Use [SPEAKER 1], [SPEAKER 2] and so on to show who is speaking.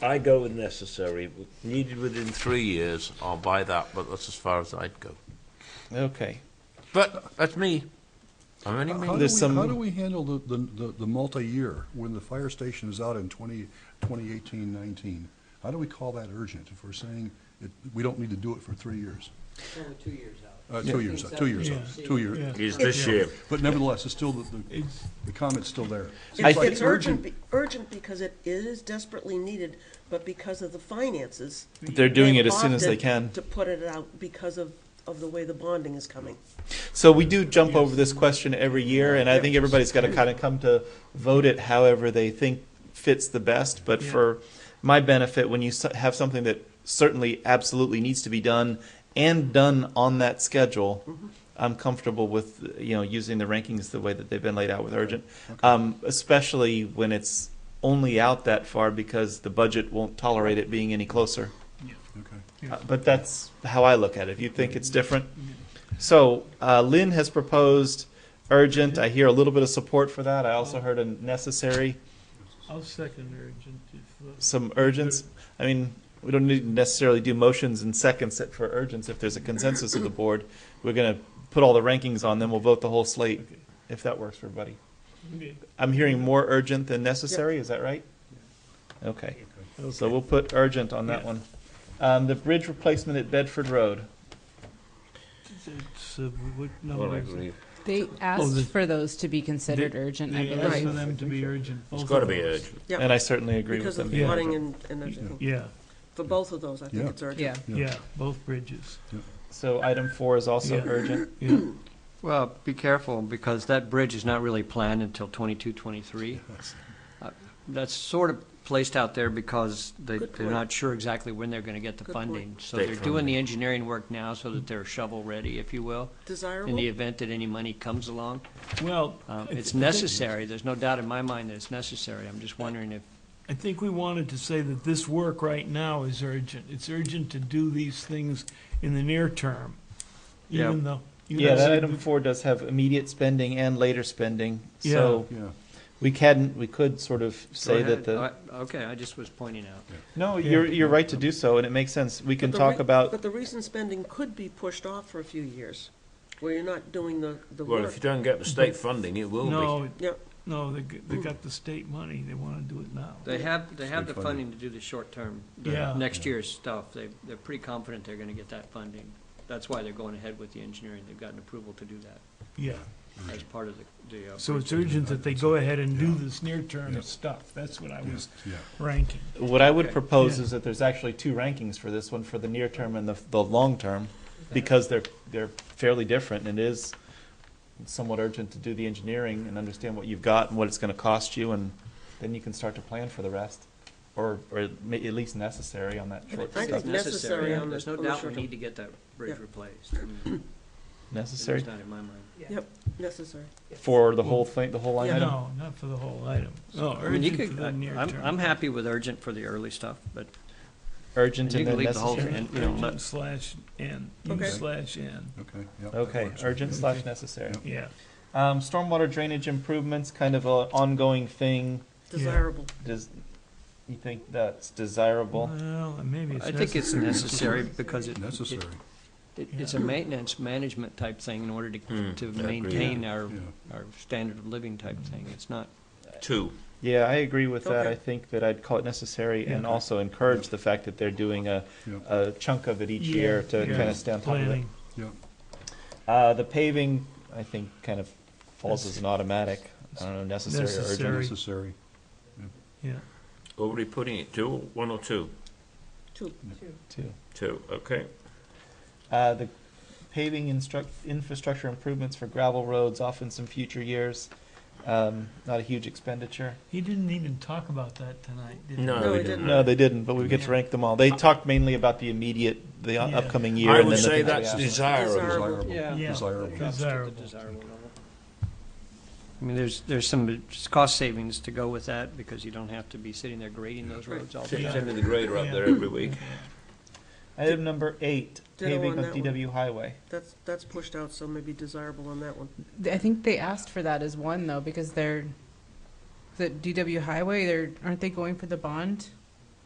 [SPEAKER 1] I go with necessary. Needed within three years, I'll buy that, but that's as far as I'd go.
[SPEAKER 2] Okay.
[SPEAKER 1] But that's me. I'm only
[SPEAKER 3] How do
[SPEAKER 1] me.
[SPEAKER 3] we,
[SPEAKER 2] There's some-
[SPEAKER 3] how do we handle the, the, the- the multi-year, when the fire station is out in 20, 2018, 19? How do we call that urgent if we're saying it, we don't need to do it for three years?
[SPEAKER 4] Only two years out.
[SPEAKER 3] Uh, two years, out, two years, out, two years.
[SPEAKER 1] Is this year.
[SPEAKER 3] But nevertheless, it's still, the, the- the comment's still there.
[SPEAKER 2] I
[SPEAKER 5] It's
[SPEAKER 2] think-
[SPEAKER 5] it's urgent, be- urgent because it is desperately needed, but because of the finances.
[SPEAKER 2] They're doing it as soon as they
[SPEAKER 5] they've opted
[SPEAKER 2] can.
[SPEAKER 5] To put it out because of, of the way the bonding is coming.
[SPEAKER 2] So we do jump over this question every year, and I think everybody's got to kind of come to vote it however they think fits the best. But for my benefit, when you s- have something that certainly absolutely needs to be done and done on that schedule, I'm comfortable with, you know, using the rankings the way that they've been laid out with urgent. Um, especially when it's only out that far because the budget won't tolerate it being any closer.
[SPEAKER 3] Okay.
[SPEAKER 2] Uh, But that's how I look at it. If you think it's different. So uh, Lynn has proposed urgent. I hear a little bit of support for that. I also heard a necessary,
[SPEAKER 6] I'll second urgent if, uh,
[SPEAKER 2] some urgents. I mean, we don't need to necessarily do motions and seconds set for urgents if there's a consensus of the board. We're going to put all the rankings on, then we'll vote the whole slate
[SPEAKER 6] Okay.
[SPEAKER 2] if that works for everybody.
[SPEAKER 6] uh, okay.
[SPEAKER 2] I'm hearing more urgent than necessary. Is that right? Okay. So
[SPEAKER 6] Okay.
[SPEAKER 2] we'll put urgent on that
[SPEAKER 6] Yeah.
[SPEAKER 2] one. Um, the bridge replacement at Bedford Road.
[SPEAKER 6] It's, uh, what
[SPEAKER 1] Well, I
[SPEAKER 6] number is it?
[SPEAKER 1] agree.
[SPEAKER 7] They
[SPEAKER 6] the-
[SPEAKER 7] asked for those to be considered urgent, I
[SPEAKER 6] They asked for
[SPEAKER 7] believe.
[SPEAKER 6] them to be urgent.
[SPEAKER 1] It's
[SPEAKER 6] both
[SPEAKER 1] got to
[SPEAKER 6] of
[SPEAKER 1] be
[SPEAKER 6] those.
[SPEAKER 1] urgent.
[SPEAKER 5] Yeah,
[SPEAKER 2] And I certainly agree with
[SPEAKER 5] Because
[SPEAKER 2] them.
[SPEAKER 5] of
[SPEAKER 6] Yeah.
[SPEAKER 5] flooding and, and everything.
[SPEAKER 6] Yeah,
[SPEAKER 5] For both of those, I think
[SPEAKER 3] Yeah.
[SPEAKER 5] it's urgent.
[SPEAKER 7] Yeah.
[SPEAKER 3] Yeah.
[SPEAKER 6] yeah, both bridges.
[SPEAKER 2] So item four is also
[SPEAKER 6] Yeah.
[SPEAKER 2] urgent.
[SPEAKER 6] Yeah,
[SPEAKER 4] Well, be careful, because that bridge is not really planned until 22, 23. Uh, That's sort of placed out there because they,
[SPEAKER 5] Good
[SPEAKER 4] they're
[SPEAKER 5] point.
[SPEAKER 4] not sure exactly when they're going to get the
[SPEAKER 5] Good
[SPEAKER 4] funding. So
[SPEAKER 1] State
[SPEAKER 4] they're doing
[SPEAKER 1] funding.
[SPEAKER 4] the engineering work now so that they're shovel-ready, if you will, in
[SPEAKER 5] Desirable?
[SPEAKER 4] the event that any money comes along.
[SPEAKER 6] well.
[SPEAKER 4] Um,
[SPEAKER 6] I-
[SPEAKER 4] It's
[SPEAKER 6] I think-
[SPEAKER 4] necessary, there's no doubt in my mind that it's necessary. I'm just wondering if,
[SPEAKER 6] I think we wanted to say that this work right now is urgent. It's urgent to do these things in the near term,
[SPEAKER 4] Yeah.
[SPEAKER 6] even though. even
[SPEAKER 2] Yeah, that
[SPEAKER 6] though-
[SPEAKER 2] item four does have immediate spending and later spending. So
[SPEAKER 3] Yeah,
[SPEAKER 2] we can, we could sort of
[SPEAKER 4] go
[SPEAKER 2] say that
[SPEAKER 4] ahead. Oh,
[SPEAKER 2] the,
[SPEAKER 4] I- Okay, I just was pointing out.
[SPEAKER 2] no,
[SPEAKER 6] Yeah.
[SPEAKER 2] you're, you're right to do so and it makes sense. We can
[SPEAKER 5] But the
[SPEAKER 2] talk
[SPEAKER 5] re-
[SPEAKER 2] about,
[SPEAKER 5] But the recent spending could be pushed off for a few years, where you're not doing the, the
[SPEAKER 1] Well,
[SPEAKER 5] work.
[SPEAKER 1] if you don't get the state funding, it will
[SPEAKER 6] No,
[SPEAKER 1] be.
[SPEAKER 6] it-
[SPEAKER 5] Yep.
[SPEAKER 6] no, they, g- they got the state money. They want to do it now.
[SPEAKER 4] They have, they have the
[SPEAKER 3] State funding.
[SPEAKER 4] funding to do the short-term, the
[SPEAKER 6] Yeah.
[SPEAKER 4] next year's stuff. They, they're pretty confident they're gonna get that funding. That's why they're going ahead with the engineering. They've gotten approval to do that
[SPEAKER 6] Yeah,
[SPEAKER 4] as part of the, the. uh,
[SPEAKER 6] so it's urgent that they go ahead and do this near-term
[SPEAKER 3] Yeah.
[SPEAKER 6] stuff. That's what I was
[SPEAKER 3] yeah.
[SPEAKER 6] ranking.
[SPEAKER 2] what I would
[SPEAKER 4] Okay.
[SPEAKER 2] propose
[SPEAKER 6] Yeah.
[SPEAKER 2] is that there's actually two rankings for this one, for the near term and the, the long term, because they're, they're fairly different and it is somewhat urgent to do the engineering and understand what you've got and what it's going to cost you and then you can start to plan for the rest or, or at least necessary on that short
[SPEAKER 5] I think
[SPEAKER 2] stuff.
[SPEAKER 4] It's
[SPEAKER 5] necessary
[SPEAKER 4] necessary.
[SPEAKER 5] on
[SPEAKER 4] There's
[SPEAKER 5] the-
[SPEAKER 4] no
[SPEAKER 5] on the
[SPEAKER 4] doubt we
[SPEAKER 5] short-term.
[SPEAKER 4] need to get that bridge
[SPEAKER 5] Yeah.
[SPEAKER 4] replaced. I mean, It's
[SPEAKER 2] Necessary?
[SPEAKER 4] not in my mind.
[SPEAKER 5] Yep, necessary.
[SPEAKER 2] For the whole thing, the whole line
[SPEAKER 5] Yeah.
[SPEAKER 2] item?
[SPEAKER 6] No, not for the whole item. No,
[SPEAKER 4] I mean, you
[SPEAKER 6] Oh, urgent for
[SPEAKER 4] could,
[SPEAKER 6] the near
[SPEAKER 4] I'm,
[SPEAKER 6] term.
[SPEAKER 4] I'm happy with urgent for the early stuff, but
[SPEAKER 2] Urgent
[SPEAKER 4] and you
[SPEAKER 2] and
[SPEAKER 4] can
[SPEAKER 2] then
[SPEAKER 4] leave the whole,
[SPEAKER 2] necessary?
[SPEAKER 4] and, you know,
[SPEAKER 6] Urgent
[SPEAKER 4] let-
[SPEAKER 6] slash N, U
[SPEAKER 5] Okay.
[SPEAKER 6] slash N,
[SPEAKER 3] Okay, yeah. that
[SPEAKER 2] Okay,
[SPEAKER 3] works.
[SPEAKER 2] urgent slash necessary.
[SPEAKER 6] yeah.
[SPEAKER 2] Um, stormwater drainage improvements, kind of a ongoing thing.
[SPEAKER 5] Desirable.
[SPEAKER 2] Does, you think that's desirable?
[SPEAKER 6] Well, maybe it's
[SPEAKER 4] I think it's necessary because it. it-
[SPEAKER 3] Necessary,
[SPEAKER 4] It, it's a maintenance, management type thing in order to,
[SPEAKER 1] Hmm,
[SPEAKER 4] to
[SPEAKER 1] I agree.
[SPEAKER 4] maintain our,
[SPEAKER 3] yeah.
[SPEAKER 4] our standard of living type thing. It's not,
[SPEAKER 1] Two.
[SPEAKER 2] Yeah, I agree with that.
[SPEAKER 5] Okay.
[SPEAKER 2] I think that I'd call it necessary and
[SPEAKER 6] Yeah.
[SPEAKER 2] also encourage the fact that they're doing a,
[SPEAKER 3] Yeah.
[SPEAKER 2] a chunk of it each
[SPEAKER 6] Yeah,
[SPEAKER 2] year to
[SPEAKER 6] yeah.
[SPEAKER 2] kind of stay on top of it.
[SPEAKER 6] Planning.
[SPEAKER 3] yeah.
[SPEAKER 2] Uh, the paving, I think, kind of falls as an automatic. I don't know, necessary or urgent.
[SPEAKER 6] Necessary.
[SPEAKER 3] Necessary,
[SPEAKER 6] Yeah,
[SPEAKER 1] Already putting it, two, one or two?
[SPEAKER 5] Two.
[SPEAKER 2] too.
[SPEAKER 1] Two, okay.
[SPEAKER 2] Uh, the paving instruct, infrastructure improvements for gravel roads off in some future years. Um, not a huge expenditure.
[SPEAKER 6] he didn't even talk about that tonight, did he?
[SPEAKER 1] No,
[SPEAKER 5] No,
[SPEAKER 1] we
[SPEAKER 5] it
[SPEAKER 1] didn't.
[SPEAKER 5] didn't.
[SPEAKER 2] No, they didn't, but we get to rank them all. They talked mainly about the immediate, the
[SPEAKER 6] Yeah.
[SPEAKER 2] upcoming year.
[SPEAKER 1] I
[SPEAKER 2] and
[SPEAKER 1] would
[SPEAKER 2] then the
[SPEAKER 1] say
[SPEAKER 2] things we
[SPEAKER 1] that's
[SPEAKER 2] have.
[SPEAKER 1] desirable.
[SPEAKER 5] Desirable.
[SPEAKER 3] desirable,
[SPEAKER 4] Yeah.
[SPEAKER 6] Yeah.
[SPEAKER 3] desirable.
[SPEAKER 4] Drops to the
[SPEAKER 6] Desirable.
[SPEAKER 4] desirable level. I mean, there's, there's some cost savings to go with that because you don't have to be sitting there grading those roads all the
[SPEAKER 1] Send
[SPEAKER 6] Yeah.
[SPEAKER 1] send me
[SPEAKER 4] time.
[SPEAKER 1] the grader up there every week.
[SPEAKER 2] Item number eight,
[SPEAKER 5] Ditto
[SPEAKER 2] paving
[SPEAKER 5] on
[SPEAKER 2] of
[SPEAKER 5] that one.
[SPEAKER 2] DW Highway.
[SPEAKER 5] That's, that's pushed out, so maybe desirable on that one.
[SPEAKER 7] I think they asked for that as one though, because they're, the DW highway, they're, aren't they going for the bond?